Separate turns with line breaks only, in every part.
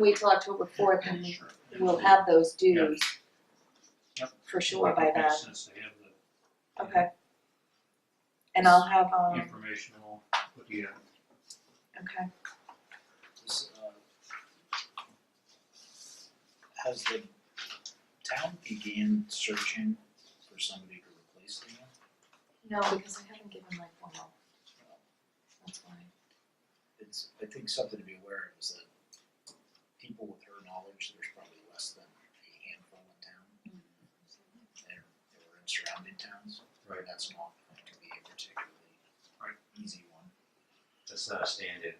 wait till October fourth and we- we'll have those dues.
Yep.
For sure by then,
Makes sense to have the
okay. And I'll have, um,
informational, but yeah,
okay,
Is, uh, Has the town began searching for somebody to replace Leon?
no, because I haven't given my formal. That's why,
It's, I think something to be aware of is that people with her knowledge, there's probably less than a handful in town. They're, they were in surrounding towns.
Right.
That's not going to be a particularly
Right.
easy one.
That's not a stand-in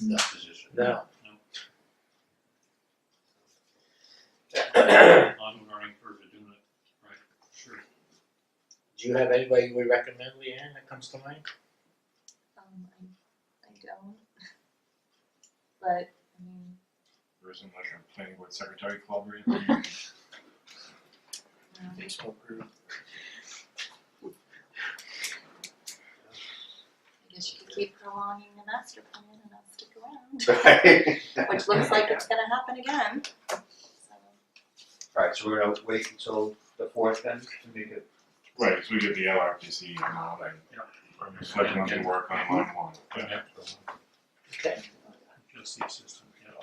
No.
position.
No.
I'm learning for doing it, right, sure.
Do you have anybody you would recommend, Leanne, that comes to mind?
um, I, I don't. But, I mean,
There isn't like a planning board secretary club or anything?
um,
Facebook group,
I guess you could keep prolonging the master plan and I'll stick around,
Right.
which looks like it's gonna happen again, so.
Alright, so we're gonna wait until the fourth then to make it,
Right, because we get the LRPC and all that.
Yeah.
I'm just letting them work on line one.
Yeah,
okay.
just the assistant, yeah.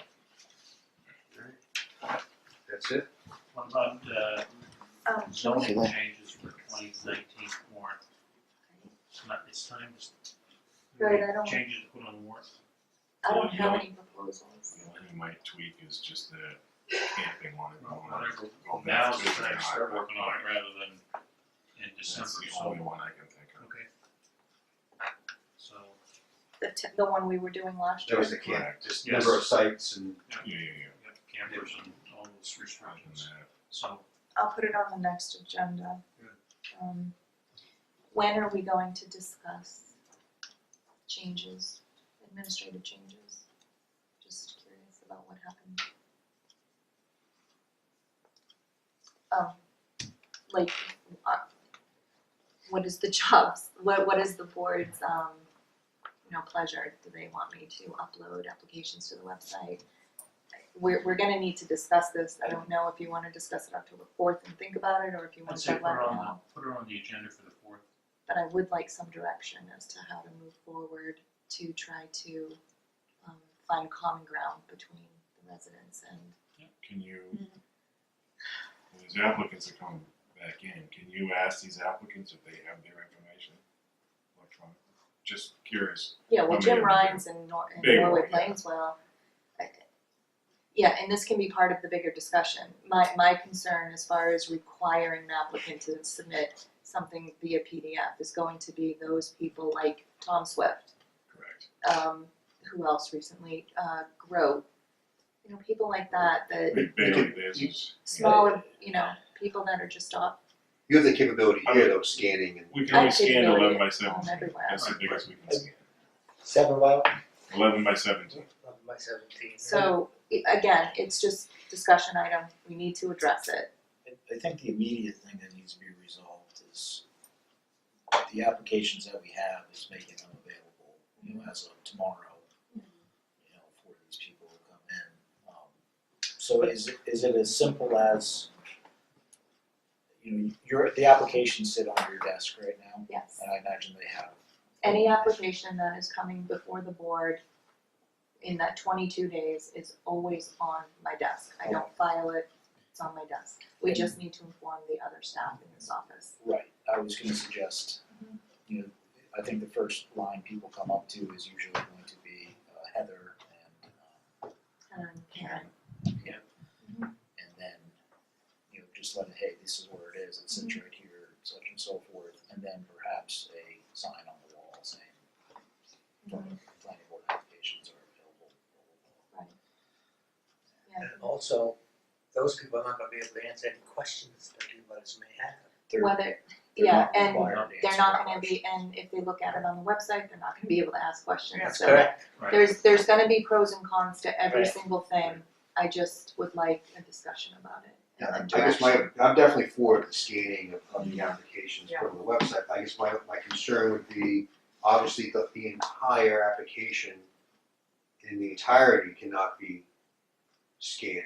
that's it?
What about, uh,
Um,
zoning changes for twenty nineteen warrant? It's not, it's time to. s-
Right, I don't-
Changes to put on warrant,
I don't have any proposals.
The only thing we might tweak is just the camping one.
Well, whatever.
Oh,
now is the time to start working on it rather than in December,
That's the
so,
only one I can think of.
okay. So,
The t- the one we were doing last
That
year.
was the camp, just
Yes.
number of sites and
Yeah, yeah,
we have campers and all those
yeah. And
restrictions,
that,
so,
I'll put it on the next agenda.
Good.
Um, when are we going to discuss changes, administrative changes? Just curious about what happened. Um, like, uh, what is the jobs, what, what is the board's, um, you know, pleasure? Do they want me to upload applications to the website? We're, we're gonna need to discuss this. I don't know if you wanna discuss it October fourth and think about it, or if you
I'd
wanna
say
talk
put
about
her
it now
on, the- put her on the agenda for the fourth,
but I would like some direction as to how to move forward to try to um find common ground between the residents and
Can you, when these applicants are coming back in, can you ask these applicants if they have their information? electronically? Just curious.
yeah, well
I
Jim
mean,
Rhines and Nor- and
Mm-hmm. big
Norway
one, yeah.
Plainswell. I- Yeah, and this can be part of the bigger discussion. My my concern as far as requiring an applicant to submit something via PDF is going to be those people like Tom Swift
Correct.
um, who else recently, uh, Grow. You know, people like that, that
Big Bailey, this is.
smaller, you know, people that are just off
you have the capability here though, scanning and.
We can only
I'd say
scan
really
eleven by
on
seventeen,
everywhere.
that's the biggest we can scan,
Seven by,
eleven by seventeen.
by seventeen.
So, i- again, it's just discussion item, we need to address it.
I- I think the immediate thing that needs to be resolved is the applications that we have is making them available, you know, as of tomorrow. You know, for these people to come in. Um, So is, it- is it as simple as, you know, your, the applications sit on your desk right now,
Yes.
and I imagine they have.
Any application that is coming before the board in that twenty-two days is always on my desk. I don't file it, it's on my desk. We just need to inform the other staff in this office.
Right, I was gonna suggest, you know, I think the first line people come up to is usually going to be uh, Heather and um,
Um, Karen,
Yeah.
Mm-hmm.
And then, you know, just let it, hey, this is where it is, it sits
Mm-hmm.
right here, such and so forth, and then perhaps a sign on the wall saying,
Mm-hmm.
planning planning board applications are available. blah, blah, blah.
yeah.
And also, those people are not gonna be able to answer any questions that you guys may have.
They're-
Whether,
they're
yeah,
not
and
required to
they're
answer
not
that
gonna be, and if they look at it on the website, they're not gonna be able to ask questions.
That's
So
correct.
Right.
There's, there's gonna be pros and cons to every
Right.
single thing, I just would like a discussion about it.
Yeah, I
and
guess
direction.
my, I'm definitely for the scanning of, of the applications put on the website, I guess my, my concern would be, obviously, the, the entire application in the entirety cannot be scanned